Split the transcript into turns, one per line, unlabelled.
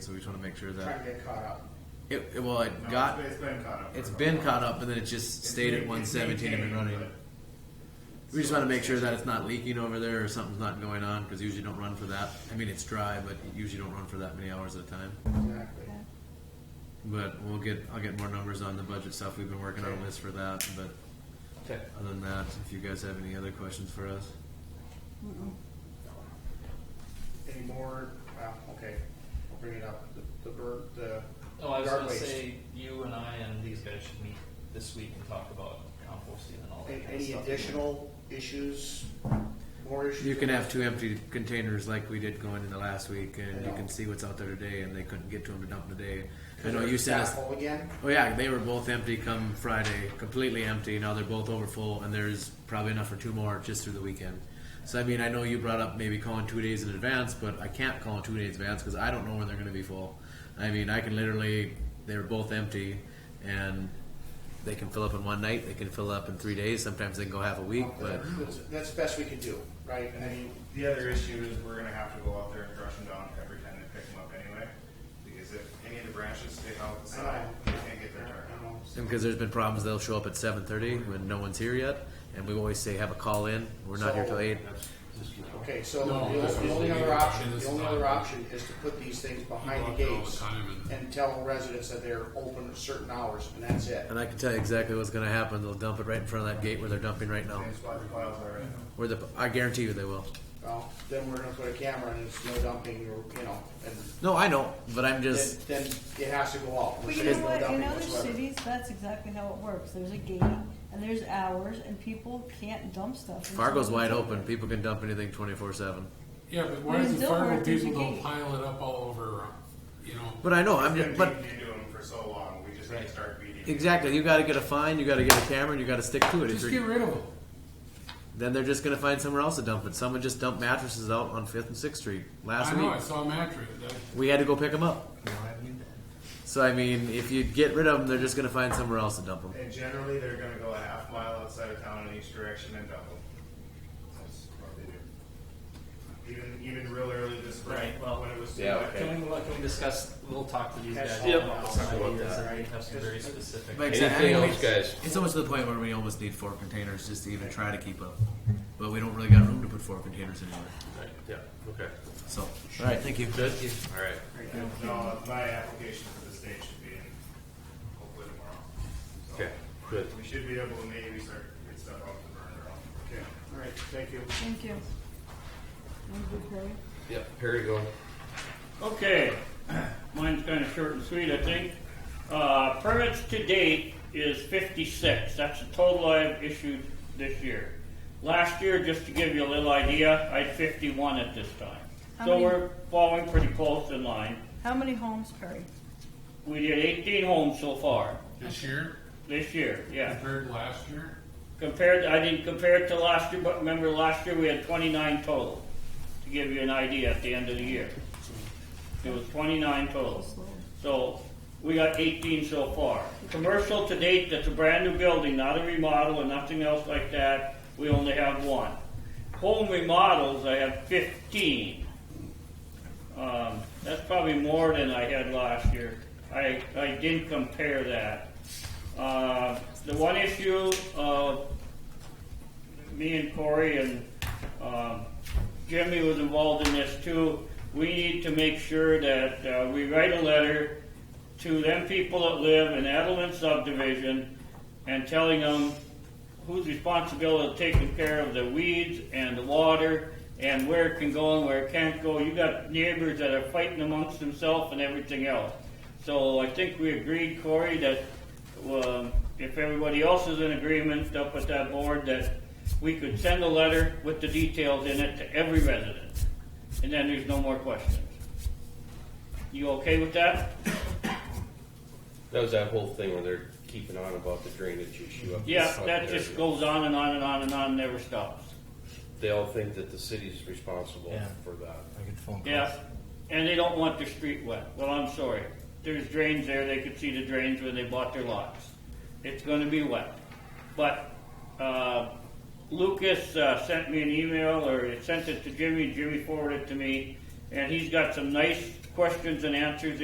so we just want to make sure
trying to
that
get caught up.
it, it- well, it
No,
got
it's been caught up. for
it's
a
been
while.
caught up, and then it just
It's
stayed at
ma-
one
it's
seventeen and been
maintained,
running.
but
We just want to make sure that it's not leaking over there or something's not going on because usually don't run for that. I mean, it's dry, but you usually don't run for that many hours at a time.
Exactly.
But we'll get I'll get more numbers on the budget stuff. We've been working on a
Okay.
list for that. But
Okay.
other than that, if you guys have any other questions for us,
Any more? Well, okay. I'll bring it up. The, the bird, the
Oh, I was
yard
gonna
waste.
say, you and I and these guys should meet this week and talk about composting and all that
A-
kind of
Any
stuff.
additional issues? More issues?
you can have two empty containers like we did going in the last week, and you
Yeah.
can see what's out there today. And they couldn't get to them to dump today. I
Because
know
they're
you sent us.
staff full again.
Oh yeah, they were both empty come Friday, completely empty. Now they're both over full, and there's probably enough for two more just through the weekend. So I mean, I know you brought up maybe calling two days in advance, but I can't call in two days in advance because I don't know when they're going to be full. I mean, I can literally they were both empty, and they can fill up in one night. They can fill up in three days. Sometimes they can go half a week, but
That's- That's the best we can do, right? I mean,
The other issue is we're gonna have to go out there and brush them down every time they pick them up anyway, because if any of the branches stick out the
I
side,
know.
they can't get their
I
target.
know.
and because there's been problems, they'll show up at seven thirty when no one's here yet, and we always say have a call in. We're not here till eight.
Okay, so the only- the only other option, the only other option is to put these things behind the gates and tell residents that they're open at certain hours, and that's it.
And I can tell you exactly what's going to happen. They'll dump it right in front of that gate where they're dumping right now.
Same spot the piles are in.
Where the I guarantee you they will.
Well, then we're gonna put a camera and it's no dumping, or, you know, and
No, I know, but I'm
then,
just
then it has to go off.
But you know what, in other cities, that's exactly how it works, there's a gate, and there's hours, and people can't dump stuff. until
Fargo's
it's
wide open. People can dump anything twenty four seven.
Yeah, but why
But in
does the farmer
Dilworth, there's a
people don't
gate.
pile it up all over, uh, you know?
But I know I'm
It's
just
been
but
keeping you doing for so long, we just need to start beating. it.
exactly. You got to get a fine. You got to get a camera. and You got to stick to it. If
Just
you're-
get rid of them.
then they're just going to find somewhere else to dump it. Someone just dumped mattresses out on Fifth and Sixth Street last
I know,
week.
I saw a mattress. that-
We had to go pick them up. So I mean, if you get rid of them, they're just going to find somewhere else to dump them.
And generally, they're gonna go a half mile outside of town in each direction and dump them. That's what they do. Even, even real early this spring,
Right, well-
when it was. too
Yeah,
wet.
okay.
Can we, can we discuss, we'll talk to these
Yes.
guys
Yep.
about
Let's
some
talk about
ideas,
that.
and we have some very specific.
Like I said,
Anything
I mean,
else, guys?
It's almost to the point where we almost need four containers just to even try to keep up. But we don't really got room to put four containers anywhere.
Yeah, okay.
So, all right, thank you.
Good? All right.
No, my application for the state should be in hopefully tomorrow. So,
Okay, good.
We should be able to maybe start to get stuff off the burner.
Okay, all right, thank you.
Thank you. Thank you, Perry.
Yep, Perry, go.
Okay, mine's kind of short and sweet, I think. Uh, permits to date is fifty-six, that's the total I've issued this year. Last year, just to give you a little idea, I had fifty-one at this time.
How
So
many-
we're falling pretty close in line.
How many homes, Perry?
We did eighteen homes so far,
This year,
this year, yeah.
compared to last year,
Compared, I didn't compare it to last year, but remember last year we had twenty-nine total, to give you an idea at the end of the year. It was twenty-nine total. So, we got eighteen so far. Commercial to date, that's a brand new building, not a remodel and nothing else like that, we only have one. Home remodels, I have fifteen. Um, that's probably more than I had last year. I, I didn't compare that. Uh, the one issue, uh, me and Corey and um, Jimmy was involved in this too. We need to make sure that uh, we write a letter to them people that live in Edelman subdivision and telling them who's responsible of taking care of the weeds and the water and where it can go and where it can't go. You got neighbors that are fighting amongst themselves and everything else. So I think we agreed, Corey, that um, if everybody else is in agreement up at that board, that we could send a letter with the details in it to every resident. And then there's no more questions. You okay with that?
That was that whole thing where they're keeping on about the drainage issue up.
Yeah,
up
that
there.
just goes on and on and on and on, never stops.
They all think that the city's responsible for that.
Yeah, and they don't want their street wet. Well, I'm sorry. There's drains there. They could see the drains when they bought their lots. It's going to be wet. But uh, Lucas uh, sent me an email, or he sent it to Jimmy. Jimmy forwarded it to me, and he's got some nice questions and answers